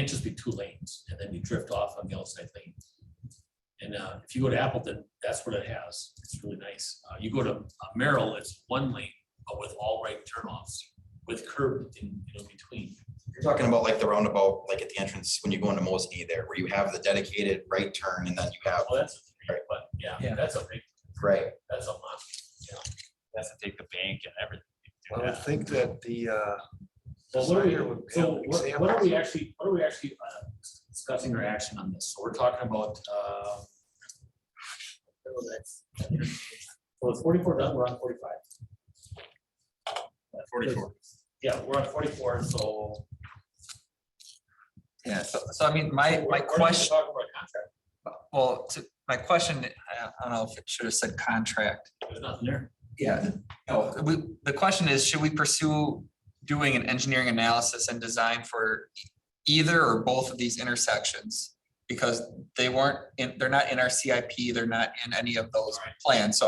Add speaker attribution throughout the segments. Speaker 1: can't just be two lanes and then you drift off on the outside lane. And uh, if you go to Appleton, that's what it has. It's really nice. Uh, You go to uh, Merrill, it's one lane, but with all right turnoffs, with curb in, you know, between.
Speaker 2: You're talking about like the roundabout, like at the entrance, when you go into Mosby there, where you have the dedicated right turn and then you have,
Speaker 1: Well, that's, a three, but yeah,
Speaker 3: Yeah.
Speaker 1: that's a big,
Speaker 2: right?
Speaker 1: that's a lot.
Speaker 4: has to take the bank and everything.
Speaker 5: I would think that the, uh,
Speaker 1: So what are we,
Speaker 5: Designer would have
Speaker 1: so
Speaker 5: an
Speaker 1: what-
Speaker 5: example.
Speaker 1: what are we actually, what are we actually uh, discussing or action on this? So we're talking about, uh. Well, it's forty-four done, we're on forty-five.
Speaker 4: Forty-four.
Speaker 1: Yeah, we're on forty-four, so.
Speaker 3: Yeah, so, so I mean,
Speaker 1: we're-
Speaker 3: my,
Speaker 1: we're
Speaker 3: my
Speaker 1: gonna
Speaker 3: question,
Speaker 1: Talk about contract,
Speaker 3: well, to, my question, I I don't know if it should have said contract.
Speaker 1: there's nothing there.
Speaker 3: Yeah. No, we, the question is, should we pursue doing an engineering analysis and design for either or both of these intersections? Because they weren't, in they're not in our CIP, they're not in any of those
Speaker 1: Right.
Speaker 3: plans, so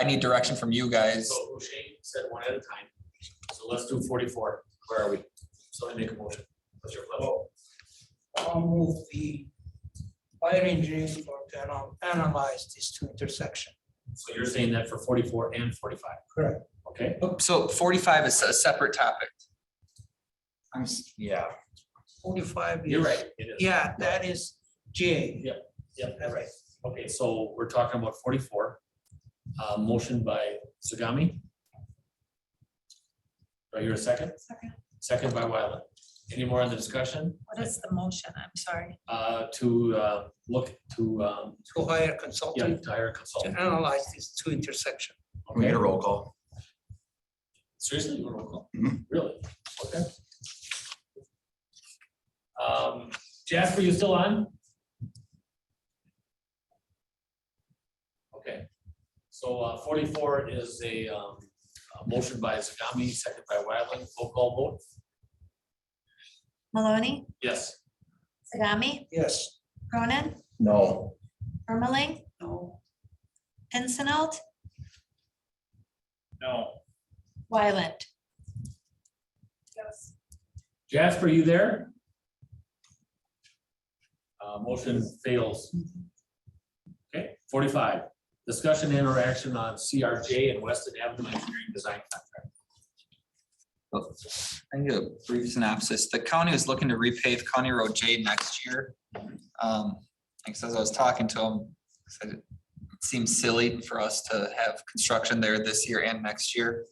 Speaker 3: I need direction from you guys.
Speaker 1: So O'Shea said one at a time, so let's do forty-four, where are we? So I make a motion, what's your pleasure?
Speaker 6: I'll move the fire engineering firm to anal- analyze these two intersections.
Speaker 1: So you're saying that for forty-four and forty-five?
Speaker 6: Correct.
Speaker 1: Okay,
Speaker 3: So forty-five is a separate topic.
Speaker 2: I'm, s- yeah,
Speaker 6: Forty-five is.
Speaker 1: you're right, it is,
Speaker 6: Yeah, that is J.
Speaker 1: yeah,
Speaker 6: That's right.
Speaker 1: Okay, so we're talking about forty-four. Uh, motion by Sagami. Do I hear a second?
Speaker 7: Second.
Speaker 1: Second by Wyland. Any more on the discussion?
Speaker 7: What is the motion? I'm sorry.
Speaker 1: Uh, to, uh, look to, um,
Speaker 6: To hire
Speaker 1: yeah,
Speaker 6: consultant
Speaker 1: to hire a
Speaker 6: to
Speaker 1: consultant.
Speaker 6: analyze these two intersections.
Speaker 2: we get
Speaker 1: Okay,
Speaker 2: a roll call.
Speaker 1: seriously, you want to call?
Speaker 2: Mhm.
Speaker 1: Really? Okay. Um, Jasper, you still on? Okay, so uh, forty-four is a, um, a motion by Zagami, second by Wyland, roll call vote,
Speaker 7: Maloney,
Speaker 1: yes.
Speaker 7: Sagami,
Speaker 6: Yes.
Speaker 7: Cronin,
Speaker 2: No,
Speaker 7: Ermeling,
Speaker 6: No.
Speaker 7: Pincinot,
Speaker 4: No.
Speaker 7: Wyland. Yes.
Speaker 1: Jasper, you there? Uh, motion fails. Okay, forty-five, discussion and or action on CRJ and Weston Avenue Engineering Design Contract.
Speaker 3: I can get a brief synopsis. The county is looking to repave County Road J next year. Um, like, so as I was talking to him, I said it seems silly for us to have construction there this year and next year.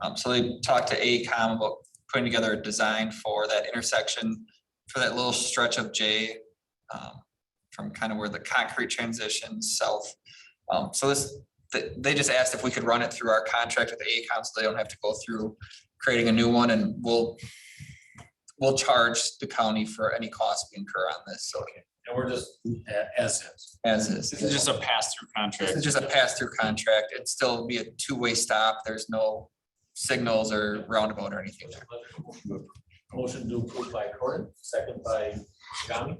Speaker 3: Um, so they talked to AECom about putting together a design for that intersection, for that little stretch of J, um, from kind of where the concrete transitions south. Um, so this, they, they just asked if we could run it through our contract with AECom, so they don't have to go through creating a new one and we'll, we'll charge the county for any costs we incur on this, so
Speaker 1: And we're just a- as is.
Speaker 3: as is.
Speaker 4: This is just a pass-through
Speaker 3: This
Speaker 4: contract.
Speaker 3: is just a pass-through contract. It'd still be a two-way stop. There's no signals or roundabout or anything there.
Speaker 1: Motion to approve by Corin, second by Shami.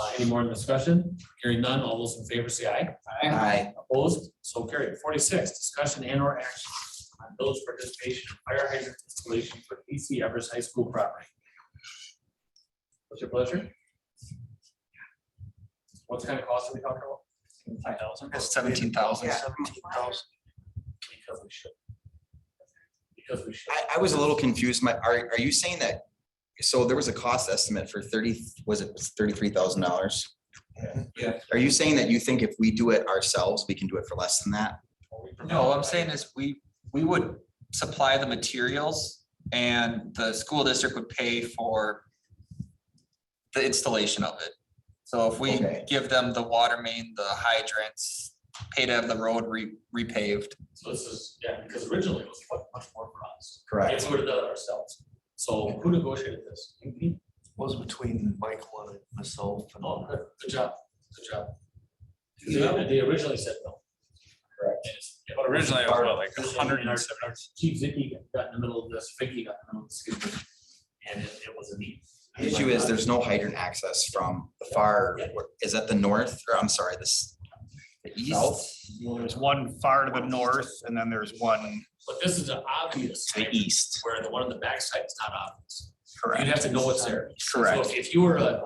Speaker 1: Uh, any more discussion? Hearing none, all those in favor say aye.
Speaker 2: I,
Speaker 1: Opposed, so carried. Forty-six, discussion and or action on village participation in fire hydrant installation for PC Evers High School property. What's your pleasure? What kind of cost are we talking about? Five thousand.
Speaker 3: Seventeen thousand.
Speaker 5: seventeen thousand,
Speaker 1: Because we should. Because we should.
Speaker 2: I, I was a little confused. My, are, are you saying that? So there was a cost estimate for thirty, was it thirty-three thousand dollars?
Speaker 3: Yeah.
Speaker 2: Are you saying that you think if we do it ourselves, we can do it for less than that?
Speaker 3: No, what I'm saying is we, we would supply the materials and the school district would pay for the installation of it. So if we
Speaker 2: Okay.
Speaker 3: give them the water main, the hydrants, pay to have the road re- repaved.
Speaker 1: So this is, yeah, because originally it was much- much more for us.
Speaker 2: Correct.
Speaker 1: If we would have done it ourselves. So who negotiated this? You?
Speaker 5: was between Michael and myself and
Speaker 1: Oh,
Speaker 5: all
Speaker 1: good, good job, good job.
Speaker 5: Yeah.
Speaker 1: They, they originally said no. Correct.
Speaker 4: But Originally, it was what, like a hundred and seventy.
Speaker 1: Chief Zicky got in the middle of this, Vicky got in the middle of this, excuse me, and it, it was a need.
Speaker 2: The issue is there's no hydrant access from the far, is that the north, or I'm sorry, this, the east?
Speaker 8: Well, there's one far to the north and then there's one.
Speaker 1: But this is an obvious.
Speaker 2: The east.
Speaker 1: Where the one on the backside is not obvious. You'd have to know what's there. So
Speaker 8: Correct.
Speaker 1: if- If you were a,